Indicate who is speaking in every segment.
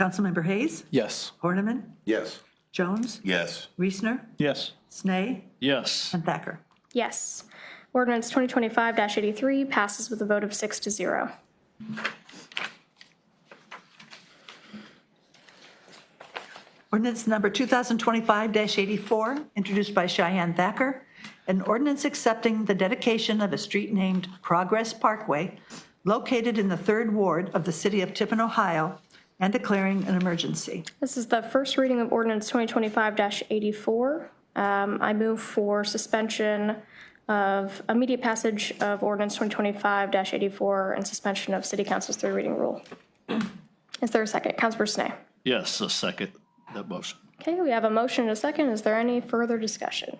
Speaker 1: Councilmember Hayes,
Speaker 2: Yes.
Speaker 1: Horniman,
Speaker 3: Yes.
Speaker 1: Jones,
Speaker 3: Yes.
Speaker 1: Reesner,
Speaker 2: Yes.
Speaker 1: Snee,
Speaker 2: Yes.
Speaker 1: and Thacker.
Speaker 4: Yes. Ordinance 2025-83 passes with a vote of six to zero.
Speaker 1: Ordinance number 2025-84, introduced by Cheyenne Thacker, an ordinance accepting the dedication of a street named Progress Parkway located in the Third Ward of the city of Tiffin, Ohio, and declaring an emergency.
Speaker 4: This is the first reading of ordinance 2025-84. Um, I move for suspension of immediate passage of ordinance 2025-84 and suspension of city council's three reading rule. Is there a second? Councilor Snee.
Speaker 2: Yes, a second that motion.
Speaker 4: Okay, we have a motion and a second. Is there any further discussion?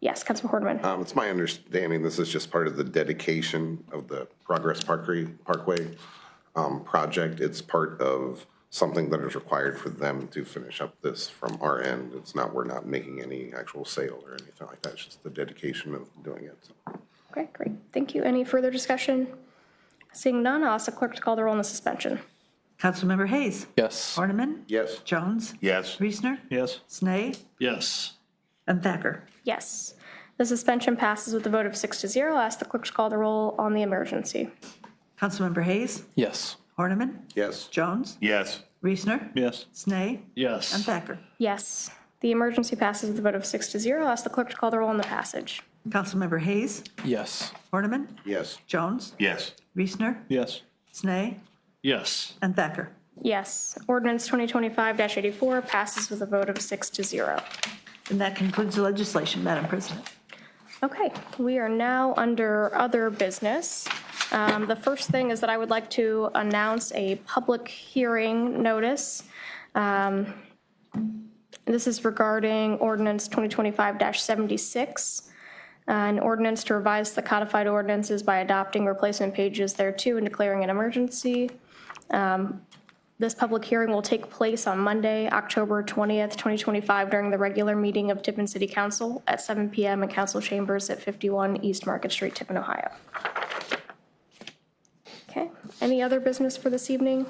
Speaker 4: Yes, Councilor Horniman.
Speaker 3: Um, it's my understanding this is just part of the dedication of the Progress Parkway, Parkway, um, project. It's part of something that is required for them to finish up this from our end. It's not, we're not making any actual sale or anything like that. It's just the dedication of doing it.
Speaker 4: Okay, great. Thank you. Any further discussion? Seeing none, I'll ask the clerk to call the roll on the suspension.
Speaker 1: Councilmember Hayes.
Speaker 2: Yes.
Speaker 1: Horniman.
Speaker 3: Yes.
Speaker 1: Jones.
Speaker 3: Yes.
Speaker 1: Reesner.
Speaker 2: Yes.
Speaker 1: Snee,
Speaker 2: Yes.
Speaker 1: and Thacker.
Speaker 4: Yes. The suspension passes with a vote of six to zero. I'll ask the clerk to call the roll on the emergency.
Speaker 1: Councilmember Hayes.
Speaker 2: Yes.
Speaker 1: Horniman.
Speaker 3: Yes.
Speaker 1: Jones.
Speaker 3: Yes.
Speaker 1: Reesner.
Speaker 2: Yes.
Speaker 1: Snee, and
Speaker 2: Yes.
Speaker 1: Thacker.
Speaker 4: Yes. The emergency passes with a vote of six to zero. I'll ask the clerk to call the roll on the passage.
Speaker 1: Councilmember Hayes.
Speaker 2: Yes.
Speaker 1: Horniman.
Speaker 3: Yes.
Speaker 1: Jones.
Speaker 3: Yes.
Speaker 1: Reesner.
Speaker 2: Yes.
Speaker 1: Snee,
Speaker 2: Yes.
Speaker 1: and Thacker.
Speaker 4: Yes. Ordinance 2025-84 passes with a vote of six to zero.
Speaker 1: And that concludes the legislation, Madam President.
Speaker 4: Okay, we are now under other business. Um, The first thing is that I would like to announce a public hearing notice. Um, This is regarding ordinance 2025-76, Uh, an ordinance to revise the codified ordinances by adopting replacement pages thereto and declaring an emergency. This public hearing will take place on Monday, October 20th, 2025, during the regular meeting of Tiffin City Council at 7 PM in council chambers at 51 East Market Street, Tiffin, Ohio. Okay, any other business for this evening?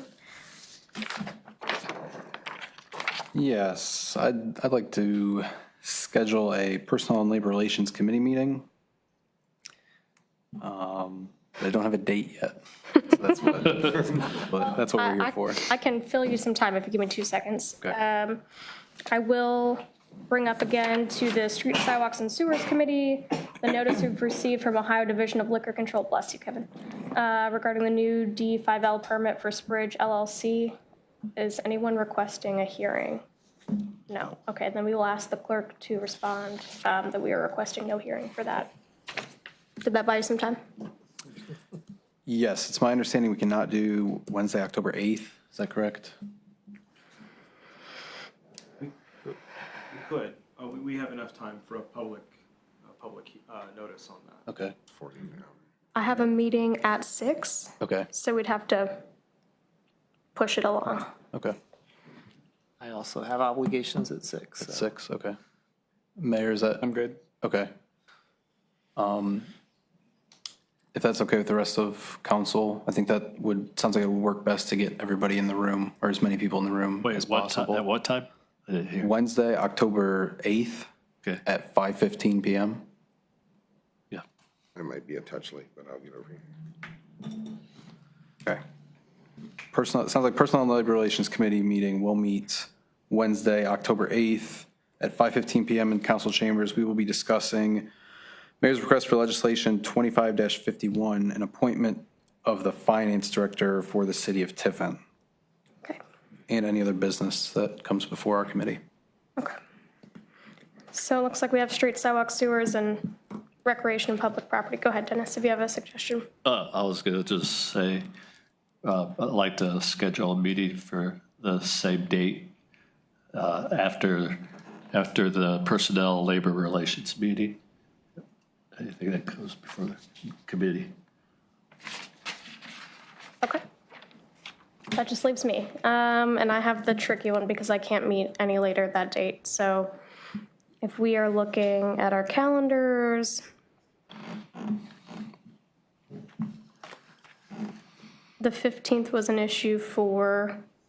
Speaker 5: Yes, I'd, I'd like to schedule a Personnel and Labor Relations Committee meeting. Um, They don't have a date yet. so That's what, but that's what we're
Speaker 4: I-
Speaker 5: here for.
Speaker 4: I can fill you some time if you give me two seconds.
Speaker 5: Okay.
Speaker 4: Um, I will bring up again to the Street Sidewalks and Sewers Committee, the notice we've received from Ohio Division of Liquor Control, bless you, Kevin, uh, regarding the new D5L permit for Spridge LLC. Is anyone requesting a hearing? No. Okay, then we will ask the clerk to respond um, that we are requesting no hearing for that. Did that buy you some time?
Speaker 5: Yes, it's my understanding we cannot do Wednesday, October 8th. Is that correct?
Speaker 6: We could, uh, we, we have enough time for a public, a public, uh, notice on that.
Speaker 5: Okay.
Speaker 4: I have a meeting at six.
Speaker 5: Okay,
Speaker 4: So we'd have to push it along.
Speaker 5: okay.
Speaker 7: I also have obligations at six. so-
Speaker 5: Six, okay. Mayor, is that? I'm good. Okay. Um, If that's okay with the rest of council, I think that would, sounds like it would work best to get everybody in the room, or as many people in the room
Speaker 2: Wait,
Speaker 5: as
Speaker 2: what time? At
Speaker 5: possible.
Speaker 2: what time? I didn't hear.
Speaker 5: Wednesday, October 8th
Speaker 2: Okay.
Speaker 5: at 5:15 PM.
Speaker 2: Yeah.
Speaker 3: It might be a touch late, but I'll get over here.
Speaker 5: Okay. Personal, it sounds like Personnel and Labor Relations Committee meeting will meet Wednesday, October 8th at 5:15 PM in council chambers. We will be discussing mayor's request for legislation 25-51, an appointment of the finance director for the city of Tiffin
Speaker 4: Okay.
Speaker 5: and any other business that comes before our committee.
Speaker 4: So it looks like we have street sidewalk sewers and recreation and public property. Go ahead, Dennis, if you have a suggestion.
Speaker 2: Uh, I was gonna just say, uh, I'd like to schedule a meeting for the same date, uh, after, after the Personnel and Labor Relations meeting. Anything that goes before the committee.
Speaker 4: Okay. That just leaves me. Um, and I have the tricky one because I can't meet any later that date. So if we are looking at our calendars, The 15th was an issue for